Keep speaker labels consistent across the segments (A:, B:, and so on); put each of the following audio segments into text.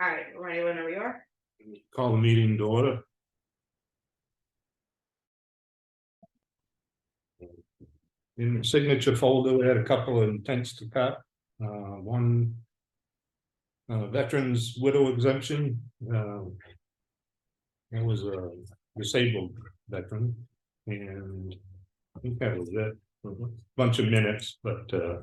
A: All right, ready whenever you are.
B: Call the meeting to order. In the signature folder, we had a couple of intents to cut, uh, one. Uh, veterans widow exemption, uh. It was a disabled veteran and I think that was it, bunch of minutes, but, uh.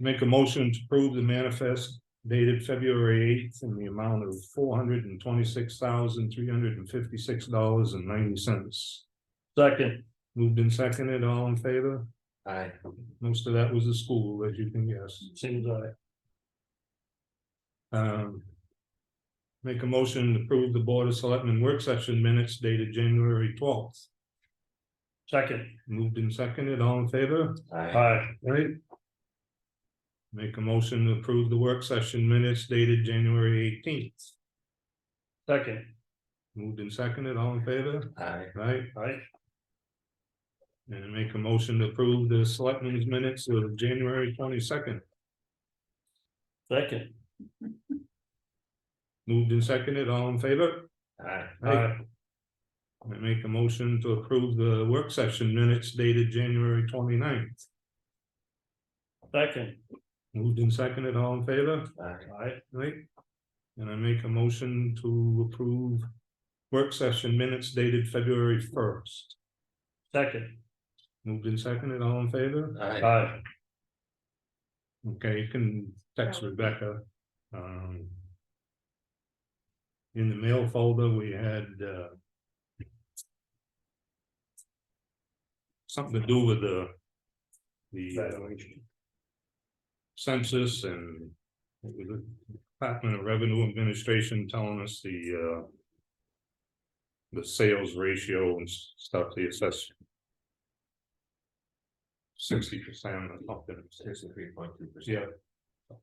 B: Make a motion to approve the manifest dated February eighth in the amount of four hundred and twenty-six thousand, three hundred and fifty-six dollars and ninety cents. Second. Moved and seconded, all in favor? Aye. Most of that was the school, as you can guess. Seems aye. Um. Make a motion to approve the Board of Selectmen work session minutes dated January twelfth. Second. Moved and seconded, all in favor? Aye. Right? Make a motion to approve the work session minutes dated January eighteenth. Second. Moved and seconded, all in favor? Aye. Right? Aye. And make a motion to approve the selectmen's minutes of January twenty-second. Second. Moved and seconded, all in favor? Aye. Aye. I make a motion to approve the work session minutes dated January 29th. Second. Moved and seconded, all in favor? Aye. Right? And I make a motion to approve work session minutes dated February first. Second. Moved and seconded, all in favor? Aye. Okay, you can text Rebecca. Um. In the mail folder, we had, uh. Something to do with the. The. uh, census and it was the Department of Revenue Administration telling us the uh. The sales ratio and s- stuff, the assessment. Sixty percent or something. Sixty-three point two percent. Yeah.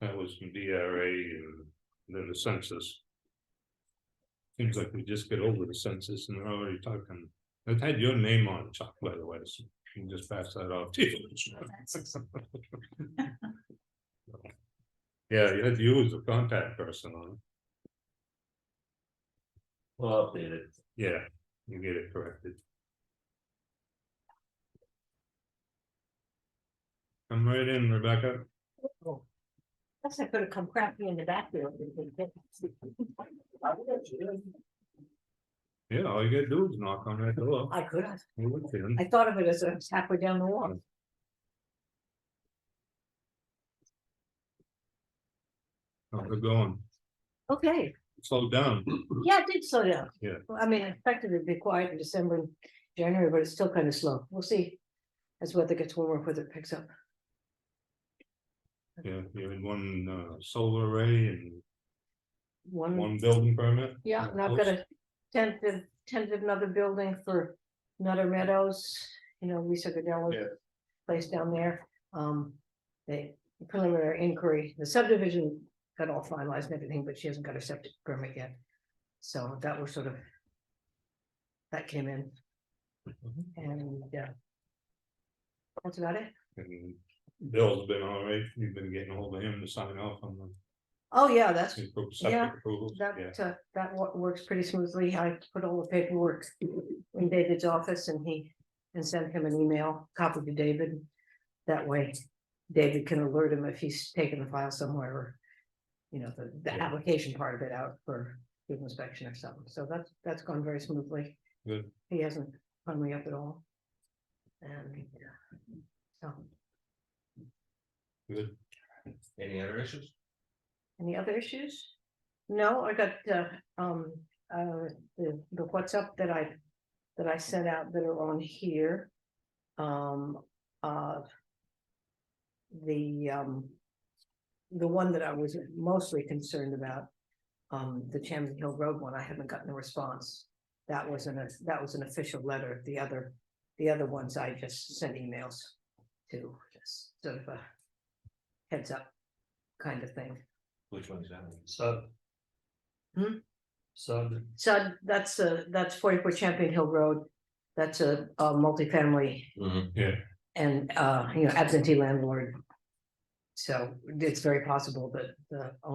B: That was from DRA and then the census. Seems like we just get over the census and they're already talking, it had your name on it, Chuck, by the way, so you can just pass that off. to you. Yeah, you had to use the contact person on it.
C: Well, updated.
B: Yeah, you get it corrected. Come right in, Rebecca.
D: Guess I could have come crappy in the backfield.
B: Yeah, all you gotta do is knock on that door.
D: I could have,
B: You look in.
D: I thought of it as I was halfway down the wall.
B: Oh, We're going,
D: Okay,
B: slow down.
D: yeah, it did slow down.
B: Yeah.
D: Well, I mean, I expected it to be quiet in December and January, but it's still kind of slow. We'll see. As weather gets warmer, whether it picks up.
B: Yeah, you had one uh solar array and
D: One,
B: one building permit.
D: yeah, and I've got a tentative, tentative another building for Nutter Meadows, you know, Lisa Goodell's
B: Yeah.
D: place down there. Um, the preliminary inquiry, the subdivision got all finalized and everything, but she hasn't got her septic permit yet. So that was sort of. That came in
B: Mhm.
D: and, yeah. That's about it.
B: And Bill's been all right, you've been getting hold of him to sign off on the.
D: Oh, yeah, that's,
B: appro-
D: Yeah,
B: septic approvals.
D: that,
B: Yeah,
D: uh, that wo- works pretty smoothly. I put all the paperwork in David's office and he. And sent him an email, copy to David. That way David can alert him if he's taken the file somewhere or. You know, the, the
B: Yeah.
D: application part of it out for field inspection or something. So that's, that's gone very smoothly.
B: Good.
D: He hasn't hung me up at all. And, yeah, so,
B: good.
C: Any other issues?
D: any other issues? No, I got, uh, um, uh, the, the what's up that I, that I sent out that are on here. Um, uh. The, um. The one that I was mostly concerned about, um, the Champion Hill Road one, I haven't gotten a response. That wasn't a, that was an official letter, the other, the other ones I just sent emails to, just sort of a. Heads up kind of thing.
C: Which one's that? one?
E: Sub.
D: Hmm?
E: Sub,
D: So that's a, that's forty-four Champion Hill Road. That's a, a multifamily and, uh, you know, absentee landlord. So it's very possible that the